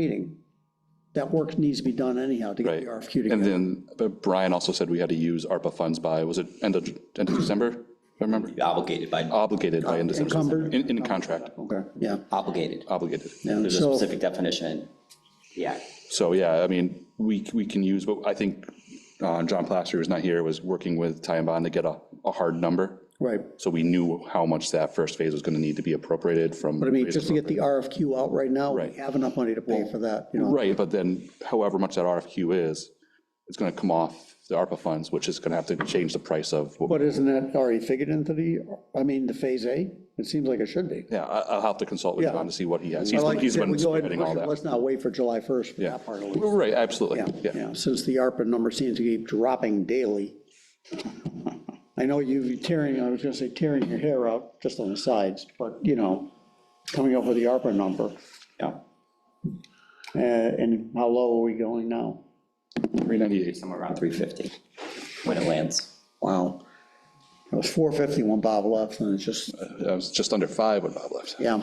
meeting. That work needs to be done anyhow to get Right. the RFQ And together. then, but Brian also said we had to use ARPA funds by, was it end of, end of December? if I remember, obligated by, obligated by end of December. Encumbered. In, in contract, Okay, yeah. obligated. obligated. And There's a so, specific definition. Yeah, So, yeah, I mean, we, we can use, but I think uh, John Plaster, who's not here, was working with Ty and Bond to get a, a hard number. right, So we knew how much that first phase was going to need to be appropriated from. but I mean, just to get the RFQ out right now, we Right. have enough money to pay for that, you know. Right, but then however much that RFQ is, it's going to come off the ARPA funds, which is going to have to change the price of what we But isn't that already figured into the, I mean, the Phase A? It seems like it should be. Yeah, I- I'll have to consult with Yeah. John to see what he has. I He's like been, he's that been we go ahead and spearheading all push it. that. Let's not wait for July 1st for Yeah. that part of it. Right, absolutely, yeah. Yeah, since the ARPA number seems to keep dropping daily. I know you're tearing, I was gonna say tearing your hair out just on the sides, but, you know, coming up with the ARPA number, yeah, uh, and how low are we going now? 398. somewhere around 350 when it lands. Wow. It was 450 when Bob left, and it's just, I was just under five when Bob left. yeah,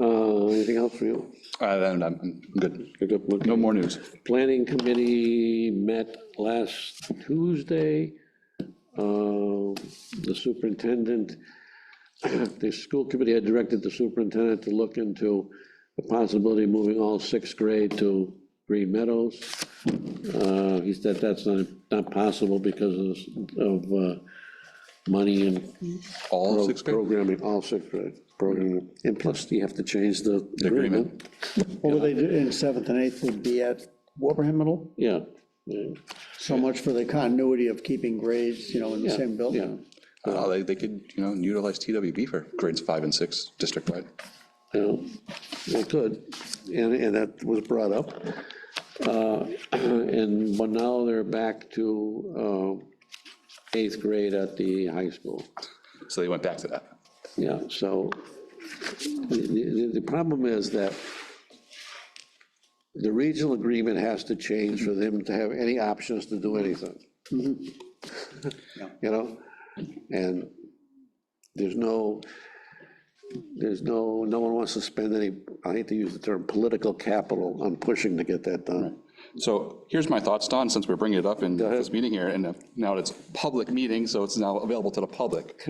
Uh, Anything else for you? Uh, then I'm I'm good. Good, good, good. No more news. Planning Committee met last Tuesday. Uh, The superintendent, the school committee had directed the superintendent to look into the possibility of moving all sixth grade to Green Meadows. Uh, He said that's not, not possible because of, of uh, money and All pro- six grade? programming, all sixth grade programming. And plus, you have to change the agreement. agreement. what would they do in seventh and eighth would be at Wilbraham Middle? Yeah. yeah. So much for the continuity of keeping grades, you know, in the Yeah, same building. Uh, They, they could, you know, utilize TWB for grades five and six district-wide. you know, they could, and, and that was brought up. Uh, And, but now they're back to uh, eighth grade at the high school. So they went back to that. Yeah, so the, the, the problem is that the regional agreement has to change for them to have any options to do anything. You know, and there's no, there's no, no one wants to spend any, I hate to use the term, political capital on pushing to get that done. So here's my thoughts, Don, since we're bringing it up in this meeting here, and if- now it's a public meeting, so it's now available to the public.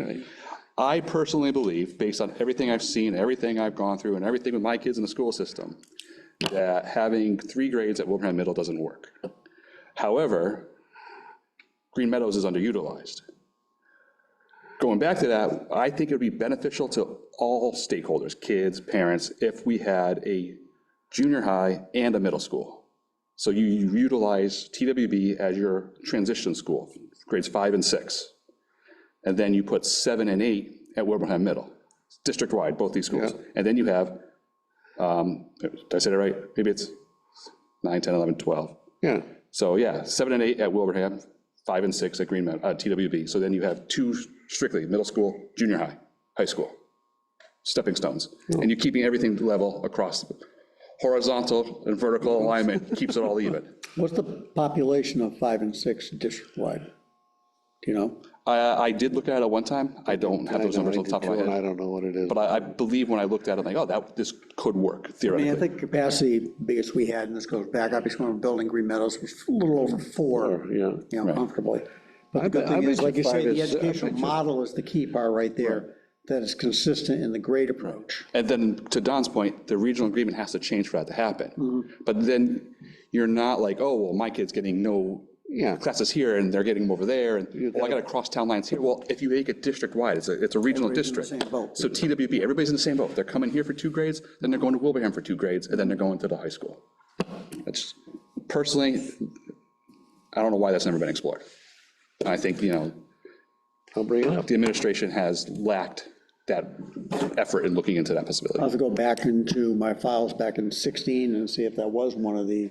I personally believe, based on everything I've seen, everything I've gone through, and everything with my kids in the school system, that having three grades at Wilbraham Middle doesn't work. However, Green Meadows is underutilized. Going back to that, I think it would be beneficial to all stakeholders, kids, parents, if we had a junior high and a middle school. So you utilize TWB as your transition school, grades five and six. And then you put seven and eight at Wilbraham Middle, district-wide, both these schools. And then you have, um, did I say that right? Maybe it's nine, 10, 11, 12. Yeah, So yeah, seven and eight at Wilbraham, five and six at Green Mountain, uh, TWB. So then you have two strictly, middle school, junior high, high school, stepping stones. And you're keeping everything level across, horizontal and vertical alignment, keeps it all even. What's the population of five and six district-wide? Do you know? I, I did look at it one time. I don't have those numbers on top of my I head. don't know what it is. But I, I believe when I looked at it, like, oh, that, this could work I mean, I theoretically. think capacity biggest we had, and this goes back, obviously, when we we're building Green Meadows, was a little over four, you Yeah, know, comfortably. But the good bet- I thing bet is, uh, you like you five say, the is- I educational bet you- model is the key bar right there, that is consistent in the grade approach. And then to Don's point, the regional agreement has to change for that to Mm-hmm. happen. But then you're not like, oh, well, my kid's getting no yeah. classes here and they're getting them over there, and, well, I gotta cross town lines here. Well, if you make it district-wide, it's a, it's a regional district. same boat. So TWB, everybody's in the same boat. They're coming here for two grades, then they're going to Wilbraham for two grades, and then they're going to the high school. That's, personally, I don't know why that's never been explored. And I think, you know, I'll bring it up. the administration has lacked that effort in looking into that I'll possibility. have to go back into my files back in 16 and see if that was one of the,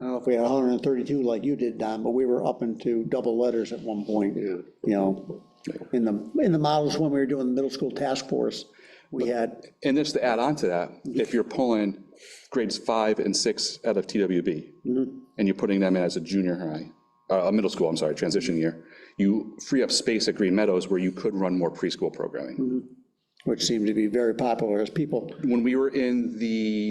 I don't know if we had 132 like you did, Don, but we were up into double letters at one point, you know? In the, in the models when we were doing the middle school task force, we had And just to add on to that, if you're pulling grades five and six out of TWB, and you're putting them in as a junior high, uh, a middle school, I'm sorry, transition year, you free up space at Green Meadows where you could run more preschool programming. which seemed to be very popular as people When we were in the